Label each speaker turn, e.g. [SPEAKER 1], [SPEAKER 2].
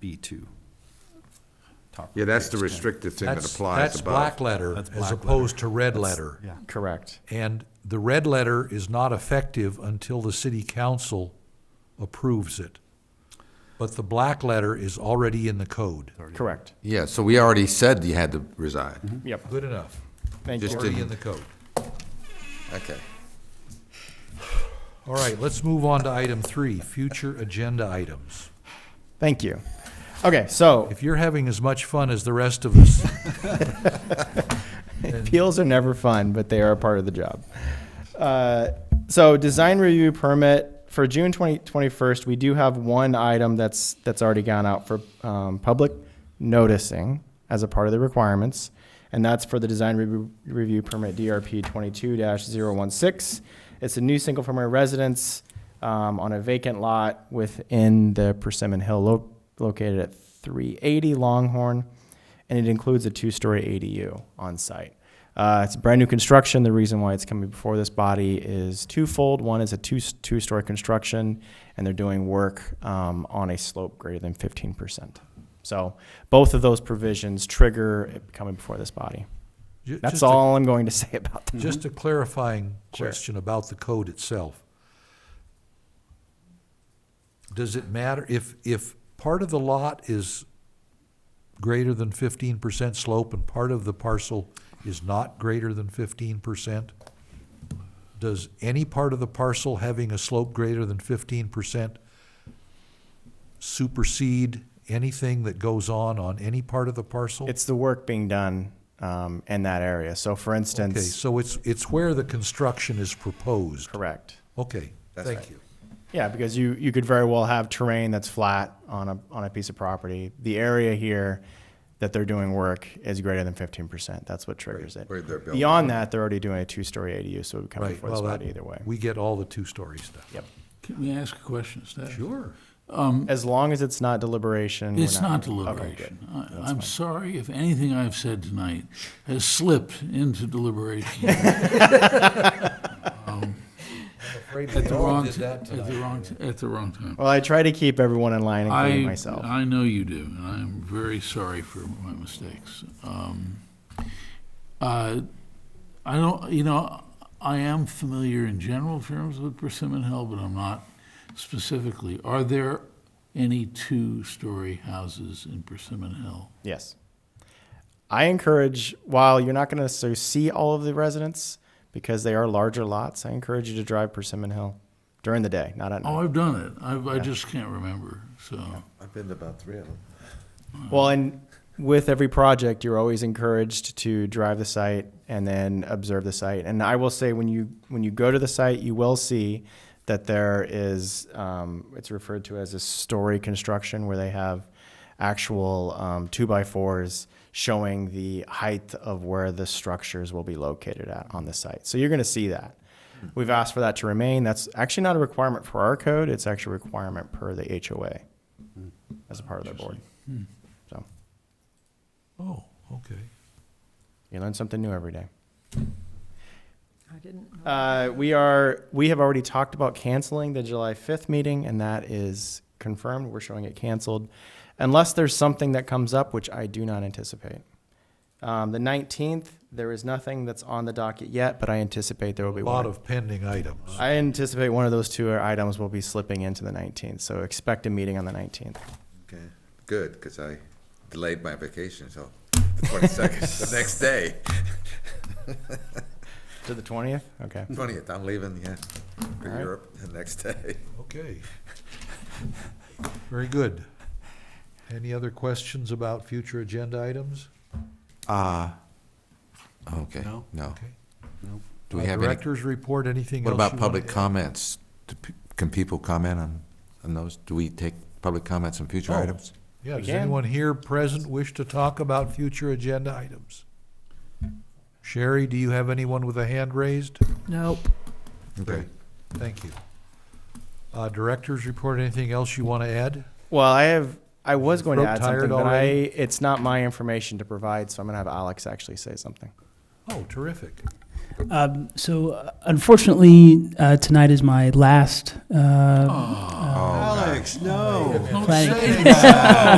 [SPEAKER 1] B2. Top
[SPEAKER 2] Yeah, that's the
[SPEAKER 1] rates,
[SPEAKER 2] restrictive thing that
[SPEAKER 3] That's,
[SPEAKER 2] applies
[SPEAKER 3] that's black
[SPEAKER 2] above.
[SPEAKER 3] letter
[SPEAKER 1] That's black
[SPEAKER 3] as
[SPEAKER 1] letter.
[SPEAKER 3] opposed to red letter.
[SPEAKER 1] Yeah,
[SPEAKER 4] Correct.
[SPEAKER 3] And the red letter is not effective until the city council approves it. But the black letter is already in the code.
[SPEAKER 4] Correct.
[SPEAKER 2] Yeah, so we already said you had to reside.
[SPEAKER 4] Yep.
[SPEAKER 3] Good enough.
[SPEAKER 4] Thank
[SPEAKER 2] Just
[SPEAKER 4] you.
[SPEAKER 3] Already in
[SPEAKER 2] didn't-
[SPEAKER 3] the code.
[SPEAKER 2] Okay.
[SPEAKER 3] All right, let's move on to item three, future agenda items.
[SPEAKER 4] Thank you. Okay, so
[SPEAKER 3] If you're having as much fun as the rest of us,
[SPEAKER 4] appeals are never fun, but they are a part of the job. Uh, so design review permit for June 20, 21st, we do have one item that's that's already gone out for um, public noticing as a part of the requirements, and that's for the design review, review permit DRP 22-016. It's a new single family residence um, on a vacant lot within the Persimmon Hill lo- located at 380 Longhorn, and it includes a two-story ADU on site. Uh, it's brand new construction. The reason why it's coming before this body is twofold. One is a two two story construction, and they're doing work um, on a slope greater than fifteen percent. So both of those provisions trigger it coming before this body.
[SPEAKER 3] ju-
[SPEAKER 4] That's
[SPEAKER 3] just a-
[SPEAKER 4] all I'm going to say about them.
[SPEAKER 3] Just a clarifying
[SPEAKER 4] Sure.
[SPEAKER 3] question about the code itself. Does it matter if, if part of the lot is greater than fifteen percent slope and part of the parcel is not greater than fifteen percent? Does any part of the parcel having a slope greater than fifteen percent supersede anything that goes on on any part of the parcel?
[SPEAKER 4] it's the work being done um, in that area. So, for instance,
[SPEAKER 3] Okay, so it's, it's where the construction is proposed.
[SPEAKER 4] correct.
[SPEAKER 3] Okay,
[SPEAKER 2] That's
[SPEAKER 3] thank
[SPEAKER 2] right.
[SPEAKER 3] you.
[SPEAKER 4] Yeah, because you, you could very well have terrain that's flat on a, on a piece of property. The area here that they're doing work is greater than fifteen percent. That's what triggers it.
[SPEAKER 2] where they're building.
[SPEAKER 4] Beyond that, they're already doing a two-story ADU, so it would come
[SPEAKER 3] Right,
[SPEAKER 4] before this
[SPEAKER 3] well, that-
[SPEAKER 4] body either way.
[SPEAKER 3] we get all the two-story stuff.
[SPEAKER 4] Yep.
[SPEAKER 5] Can we ask a question, Steph?
[SPEAKER 3] Sure.
[SPEAKER 4] As long as it's not deliberation. we're
[SPEAKER 5] It's not
[SPEAKER 4] okay, good.
[SPEAKER 5] deliberation. I- I'm sorry if anything I've said tonight has slipped into deliberation at the wrong,
[SPEAKER 3] did that
[SPEAKER 5] at the wrong, at the wrong time.
[SPEAKER 4] Well, I try to keep everyone in line, including myself.
[SPEAKER 5] I know you do, and I'm very sorry for my mistakes. Um, uh, I don't, you know, I am familiar in general terms with Persimmon Hill, but I'm not specifically. Are there any two-story houses in Persimmon Hill?
[SPEAKER 4] Yes. I encourage, while you're not going to necessarily see all of the residents because they are larger lots, I encourage you to drive Persimmon Hill during the day, not at night.
[SPEAKER 5] Oh, I've done it. I've, I just can't remember. So,
[SPEAKER 2] I've been to about three of them.
[SPEAKER 4] Well, and with every project, you're always encouraged to drive the site and then observe the site. And I will say, when you when you go to the site, you will see that there is um, it's referred to as a story construction where they have actual um, two by fours showing the height of where the structures will be located at on the site. So you're going to see that. We've asked for that to remain. That's actually not a requirement for our code. It's actually a requirement per the HOA as a part of their board. So.
[SPEAKER 3] Oh, okay.
[SPEAKER 4] You learn something new every day.
[SPEAKER 6] I didn't know.
[SPEAKER 4] Uh, we are we have already talked about canceling the July 5th meeting, and that is confirmed. We're showing it canceled, unless there's something that comes up, which I do not anticipate. Um, the 19th, there is nothing that's on the docket yet, but I anticipate there will be
[SPEAKER 3] A lot
[SPEAKER 4] one.
[SPEAKER 3] of pending items.
[SPEAKER 4] I anticipate one of those two items will be slipping into the 19th, so expect a meeting on the 19th.
[SPEAKER 2] Okay, good, because I delayed my vacation until the twenty-second, the next day,
[SPEAKER 4] To the 20th? Okay.
[SPEAKER 2] twentieth, I'm leaving, yeah, for
[SPEAKER 4] right.
[SPEAKER 2] Europe the next day.
[SPEAKER 3] Okay. Very good. Any other questions about future agenda items?
[SPEAKER 2] Uh, okay,
[SPEAKER 1] No?
[SPEAKER 2] no.
[SPEAKER 3] Okay.
[SPEAKER 2] Oh, Do we
[SPEAKER 3] Uh,
[SPEAKER 2] have any,
[SPEAKER 3] Directors report, anything else?
[SPEAKER 2] what
[SPEAKER 3] you
[SPEAKER 2] about
[SPEAKER 3] wanna
[SPEAKER 2] public
[SPEAKER 3] add?
[SPEAKER 2] comments? Do pe- Can people comment on, on those? Do we take public comments on future
[SPEAKER 3] Oh.
[SPEAKER 2] items?
[SPEAKER 3] Yeah, does
[SPEAKER 4] Again.
[SPEAKER 3] anyone here present wish to talk about future agenda items? Sherry, do you have anyone with a hand raised?
[SPEAKER 6] Nope.
[SPEAKER 2] Okay.
[SPEAKER 3] Thank you. Uh, directors report, anything else you want to add?
[SPEAKER 4] Well, I have. I was going to
[SPEAKER 3] Throat
[SPEAKER 4] add
[SPEAKER 3] tired
[SPEAKER 4] something, but I,
[SPEAKER 3] already?
[SPEAKER 4] it's not my information to provide, so I'm going to have Alex actually say something.
[SPEAKER 3] Oh, terrific.
[SPEAKER 7] Um, so uh, unfortunately, uh, tonight is my last uh,
[SPEAKER 2] Oh, Alex,
[SPEAKER 1] No.
[SPEAKER 7] planning.